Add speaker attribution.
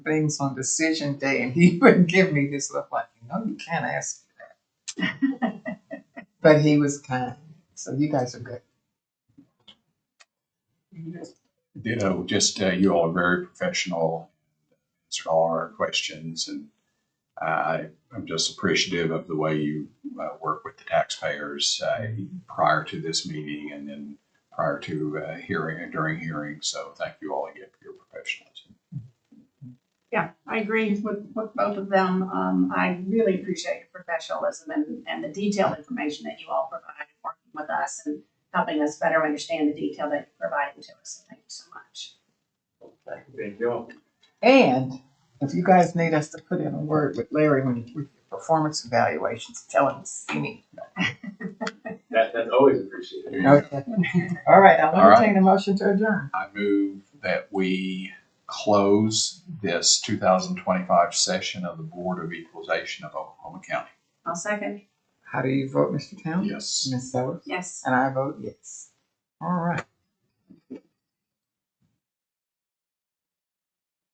Speaker 1: things on decision day and he would give me this look like, you know, you can't ask. But he was kind. So you guys are good.
Speaker 2: Ditto, just uh, you all are very professional, answered all our questions, and I, I'm just appreciative of the way you uh, work with the taxpayers uh, prior to this meeting and then prior to uh, hearing and during hearing. So thank you all again for your professionalism.
Speaker 3: Yeah, I agree with, with both of them. Um, I really appreciate your professionalism and, and the detailed information that you all provide working with us and helping us better understand the detail that you're providing to us. Thank you so much.
Speaker 4: Thank you.
Speaker 1: And if you guys need us to put in a word with Larry when with your performance evaluations, tell him to see me.
Speaker 4: That, that's always appreciated.
Speaker 1: Okay. All right, I'll
Speaker 2: All right.
Speaker 1: entertain a motion to adjourn.
Speaker 2: I move that we close this 2025 session of the Board of Equalization of Oklahoma County.
Speaker 3: I'll second.
Speaker 1: How do you vote, Mr. Town?
Speaker 2: Yes.
Speaker 1: Ms. Sellers?
Speaker 3: Yes.
Speaker 1: And I vote yes. All right.